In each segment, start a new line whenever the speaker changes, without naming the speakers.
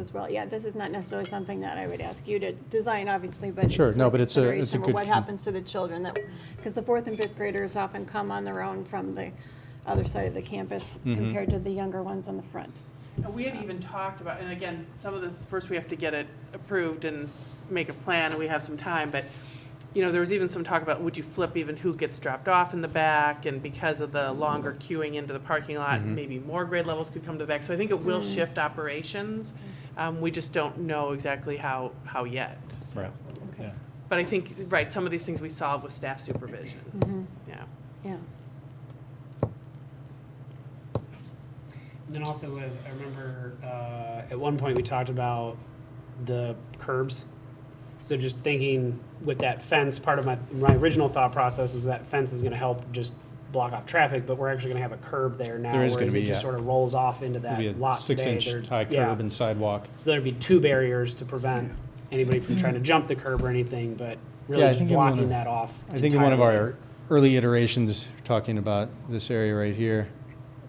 as well. Yeah, this is not necessarily something that I would ask you to design, obviously, but.
Sure,
just
no,
a
but it's a-
consideration
it's a
for
good-
What happens to the children that, because the fourth and fifth graders often come on their own from the other side of the campus
Mhm.
compared to the younger ones on the front.
And we had even talked about, and again, some of this, first we have to get it approved and make a plan, we have some time, but, you know, there was even some talk about, would you flip even who gets dropped off in the back? And because of the longer queuing into the parking lot, maybe more grade levels could come to the back. So I think it will shift operations. Um, we just don't know exactly how, how yet. so.
Right, yeah.
But I think, right, some of these things we solve with staff supervision. Yeah.
Yeah.
Then also, uh, I remember uh, at one point we talked about the curbs. So just thinking with that fence, part of my my original thought process was that fence is going to help just block off traffic, but we're actually going to have a curb there now.
There is gonna
whereas
be,
it just
yeah.
sort of rolls off into that
It'll be a
lot today.
six-inch
There-
high
yeah.
curb and sidewalk.
So there'd be two barriers to prevent anybody from trying to jump the curb or anything, but really
Yeah, I
just
think in one
blocking
of-
that off.
I think in one of
entirely.
our early iterations, talking about this area right here,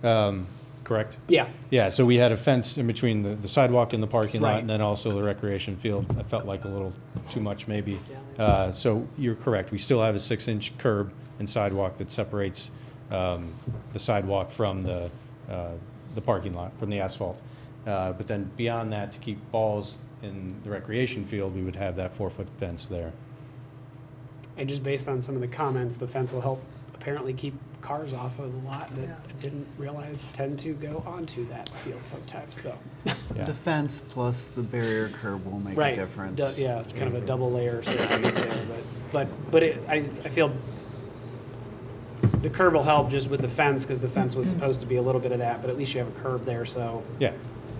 um, correct?
yeah.
Yeah, so we had a fence in between the the sidewalk and the parking lot,
Right.
and then also the recreation field. That felt like a little too much, maybe. Uh, So you're correct, we still have a six-inch curb and sidewalk that separates um, the sidewalk from the, uh, the parking lot, from the asphalt. Uh, But then beyond that, to keep balls in the recreation field, we would have that four-foot fence there.
And just based on some of the comments, the fence will help apparently keep cars off of the lot that I didn't realize tend to go onto that field sometimes, so.
Yeah,
The fence plus the barrier curb will make a
Right,
difference.
du- Yeah, it's kind of a double layer, so to speak, there, but, but, but it, I, I feel the curb will help just with the fence, because the fence was supposed to be a little bit of that, but at least you have a curb there, so
yeah,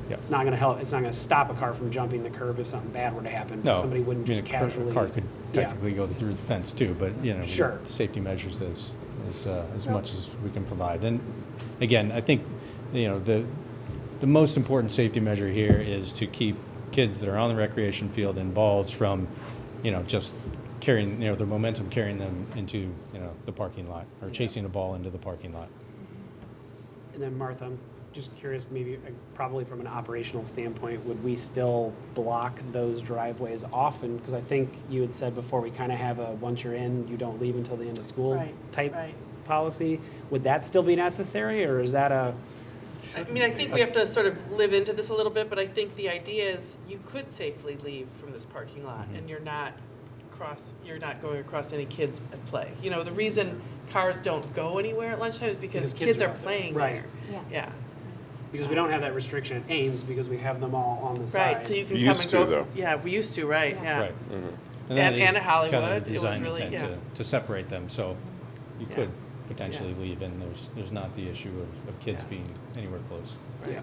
yeah.
it's not gonna help, it's not gonna stop a car from jumping the curb if something bad were to happen. but
No,
Somebody wouldn't
I mean,
just
a car-
casually.
A car could
Yeah.
technically go through the fence too, but, you know. we-
Sure.
the Safety measures as, as, uh, as much as we can provide. And again, I think, you know, the, the most important safety measure here is to keep kids that are on the recreation field and balls from, you know, just carrying, you know, the momentum carrying them into, you know, the parking lot or chasing a ball into the parking lot.
And then Martha, I'm just curious, maybe, uh, probably from an operational standpoint, would we still block those driveways often? Because I think you had said before, we kind of have a, once you're in, you don't leave until the end of school
Right,
type
right.
policy. Would that still be necessary, or is that a,
I mean, I think we have to sort of live into this a little bit, but I think the idea is you could safely leave from this parking lot and you're not cross, you're not going across any kids at play. You know, the reason cars don't go anywhere at lunchtime is because
Because kids
kids
are
are
out there.
playing there.
Right.
Yeah,
because we don't have that restriction at Ames, because we have them all on the side.
right, so you can
We
come
used
and
to,
go.
though.
Yeah, we used to, right, yeah.
Right. that is
And- and
kind of the
Hollywood, it was
design
really-
intent
yeah.
To, to separate them, so you
Yeah.
could potentially leave and there's, there's not the issue of, of kids
Yeah.
being anywhere close.
Yeah.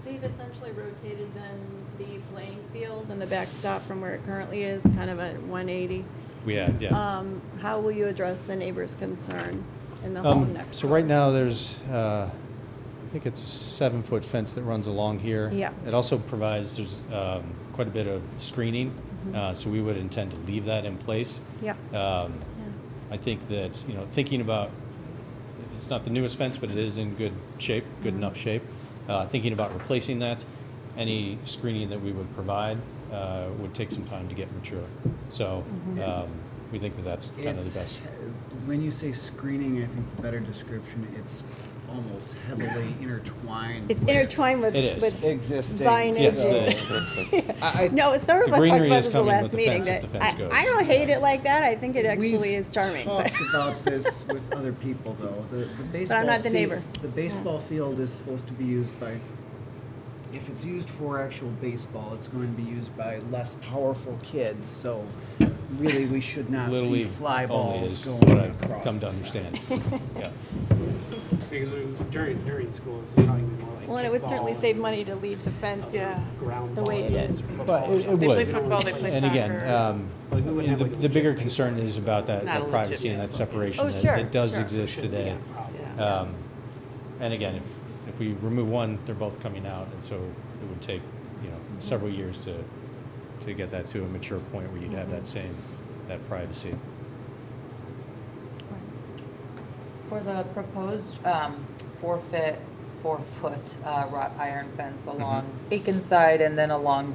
So you've essentially rotated then the playing field and the backstop from where it currently is, kind of at 180.
We had, yeah.
Um, How will you address the neighbor's concern in the
Um,
home next?
So
door?
right now, there's, uh, I think it's a seven-foot fence that runs along here.
Yeah.
It also provides, there's um, quite a bit of screening,
Mm-hmm.
uh, so we would intend to leave that in place.
Yeah.
Um,
Yeah.
I think that, you know, thinking about, it's not the newest fence, but it is in good shape,
Mm-hmm.
good enough shape. Uh, Thinking about replacing that, any screening that we would provide uh, would take some time to get mature. So um, we think that that's kind of
Mm-hmm. It's-
the best.
When you say screening, I think the better description, it's almost heavily intertwined.
It's
with
intertwined with.
It is.
with-
Existing.
Vine
Yes,
is-
so-
the-
I- I-
No, some of
The
us talked
greenery
about
is
this the
coming
last
with the
meeting.
fence
that
if the
I
fence goes.
I don't hate it like that. I think it actually
We've
is charming. but-
talked about this with other people, though. The, the baseball.
not the
field-
neighbor.
The baseball field is supposed to be used by. If it's used for actual baseball, it's going to be used by less powerful kids. So, really, we should not
Little
see
League
fly
only
balls
is
going
what I've
across.
Come to
the
understand.
fence.
Yeah.
Because we- during, during school, it's probably gonna be more like.
Well, and it would
kickball
certainly
and
save money to leave the fence.
Yeah.
Ground
the
ball.
way it
games
is.
or football
But
or
it- it
something.
would. They
play football, they play
And again,
soccer.
um,
Like, we wouldn't have,
the
like, a
the bigger
legit-
concern is about that
Not a
that
legit
privacy and that
baseball.
separation
Oh,
that-
sure,
that does
sure.
exist
Shouldn't be
today.
a problem.
Yeah.
Um, And again, if, if we remove one, they're both coming out, and so it would take, you know, several years to, to get that to a mature point where you'd have that same, that privacy.
For the proposed um, forfeit
four-foot uh, wrought iron fence along Beacon side and then along